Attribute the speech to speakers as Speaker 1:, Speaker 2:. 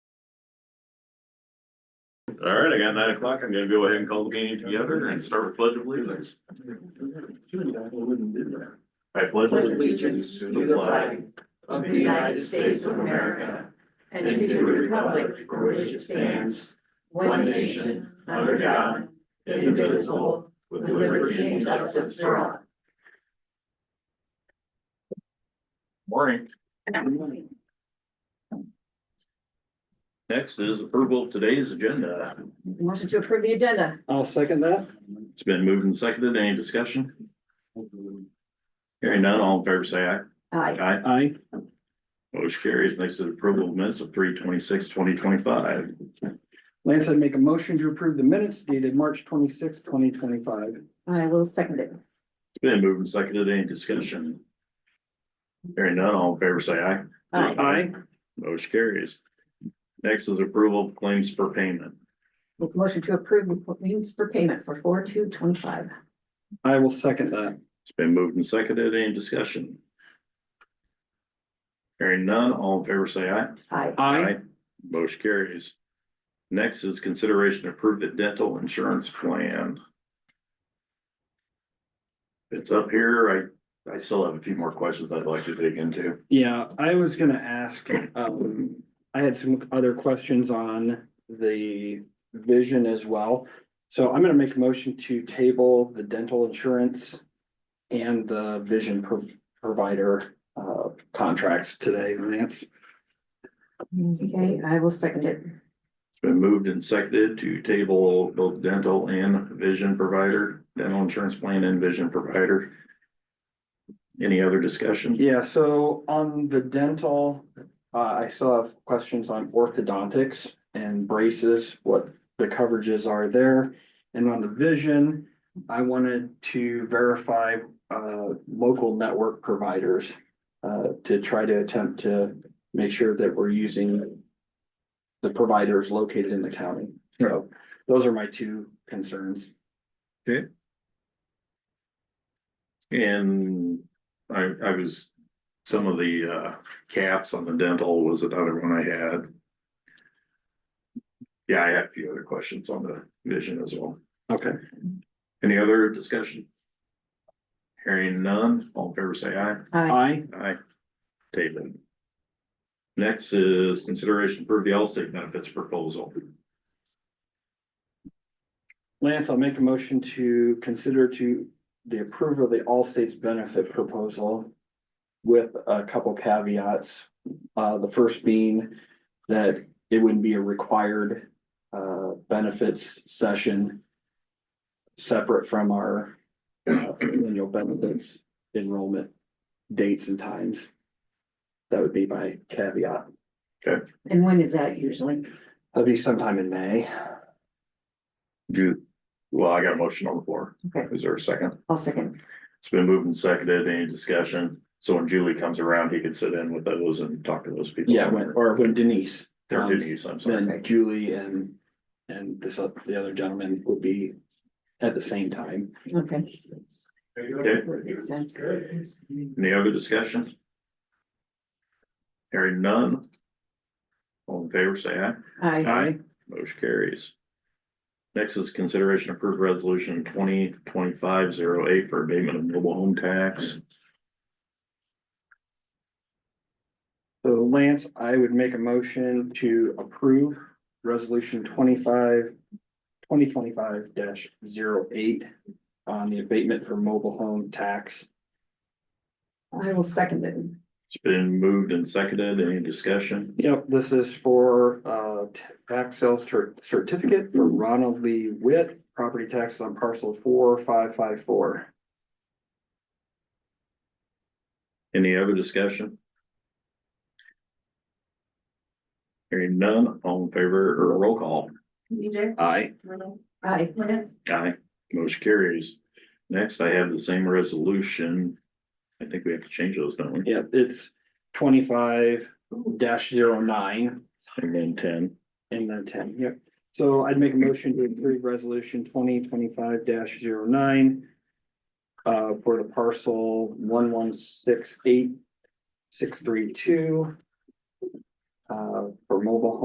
Speaker 1: All right, I got nine o'clock. I'm gonna go ahead and call the meeting together and start with pledge of allegiance. I pledge allegiance to the flag
Speaker 2: of the United States of America and to the republic for which it stands, one nation, under God, indivisible,
Speaker 1: with
Speaker 2: with liberty and justice for all.
Speaker 1: Morning. Next is approval of today's agenda.
Speaker 2: Motion to approve the agenda.
Speaker 3: I'll second that.
Speaker 1: It's been moved and seconded. Any discussion? Hearing none, all in favor, say aye.
Speaker 2: Aye.
Speaker 1: Aye.
Speaker 3: Aye.
Speaker 1: Motion carries. Next is approval of minutes of three twenty-six, twenty twenty-five.
Speaker 3: Lance, I'd make a motion to approve the minutes dated March twenty sixth, twenty twenty five.
Speaker 2: I will second it.
Speaker 1: It's been moved and seconded. Any discussion? Hearing none, all in favor, say aye.
Speaker 2: Aye.
Speaker 1: Motion carries. Next is approval of claims for payment.
Speaker 2: Make a motion to approve claims for payment for four two twenty five.
Speaker 3: I will second that.
Speaker 1: It's been moved and seconded. Any discussion? Hearing none, all in favor, say aye.
Speaker 2: Aye.
Speaker 3: Aye.
Speaker 1: Motion carries. Next is consideration to approve the dental insurance plan. It's up here. I, I still have a few more questions I'd like to dig into.
Speaker 3: Yeah, I was gonna ask, um, I had some other questions on the vision as well. So I'm gonna make a motion to table the dental insurance and the vision pro- provider, uh, contracts today, Lance.
Speaker 2: Okay, I will second it.
Speaker 1: It's been moved and seconded to table both dental and vision provider, dental insurance plan and vision provider. Any other discussion?
Speaker 3: Yeah, so on the dental, uh, I still have questions on orthodontics and braces, what the coverages are there. And on the vision, I wanted to verify, uh, local network providers. Uh, to try to attempt to make sure that we're using. The providers located in the county, so those are my two concerns.
Speaker 1: And I, I was, some of the, uh, caps on the dental was another one I had. Yeah, I had a few other questions on the vision as well.
Speaker 3: Okay.
Speaker 1: Any other discussion? Hearing none, all in favor say aye.
Speaker 2: Aye.
Speaker 3: I,
Speaker 1: Aye. David. Next is consideration for the Allstate benefits proposal.
Speaker 3: Lance, I'll make a motion to consider to the approval of the all states benefit proposal. With a couple caveats, uh, the first being that it would be a required, uh, benefits session. Separate from our uh, annual benefits enrollment dates and times. That would be my caveat.
Speaker 2: And when is that usually?
Speaker 3: That'd be sometime in May.
Speaker 1: Ju- well, I got a motion on the floor.
Speaker 2: Okay.
Speaker 1: Is there a second?
Speaker 2: I'll second.
Speaker 1: It's been moved and seconded. Any discussion? So when Julie comes around, he can sit in with those and talk to those people.
Speaker 3: Yeah, when, or when Denise. Um,
Speaker 1: Or
Speaker 3: comes.
Speaker 1: Denise, I'm sorry.
Speaker 3: then Julie and, and this, oth- the other gentleman would be at the same time.
Speaker 2: Okay.
Speaker 1: Okay,
Speaker 2: Makes sense.
Speaker 1: any other discussion? Hearing none. All in favor, say aye.
Speaker 2: Aye.
Speaker 1: Motion carries. Next is consideration approved resolution twenty twenty-five zero eight for abatement of mobile home tax.
Speaker 3: So Lance, I would make a motion to approve resolution twenty-five, twenty twenty-five dash zero eight on the abatement for mobile home tax.
Speaker 2: I will second it.
Speaker 1: It's been moved and seconded. Any discussion?
Speaker 3: Yep, this is for, uh, t- tax sales cer- certificate for Ronald Lee Witt, property tax on parcel four, five, five, four.
Speaker 1: Any other discussion? Hearing none, all in favor or roll call?
Speaker 4: BJ,
Speaker 3: Aye.
Speaker 4: Arnold,
Speaker 2: Aye.
Speaker 4: Lance,
Speaker 1: Aye. Motion carries. Next, I have the same resolution. I think we have to change those, don't we?
Speaker 3: Yep, it's twenty-five dash zero nine
Speaker 1: And then ten.
Speaker 3: and then ten, yep. So I'd make a motion to approve resolution twenty twenty-five dash zero nine. Uh, for the parcel one one six eight six three two. Uh, for mobile home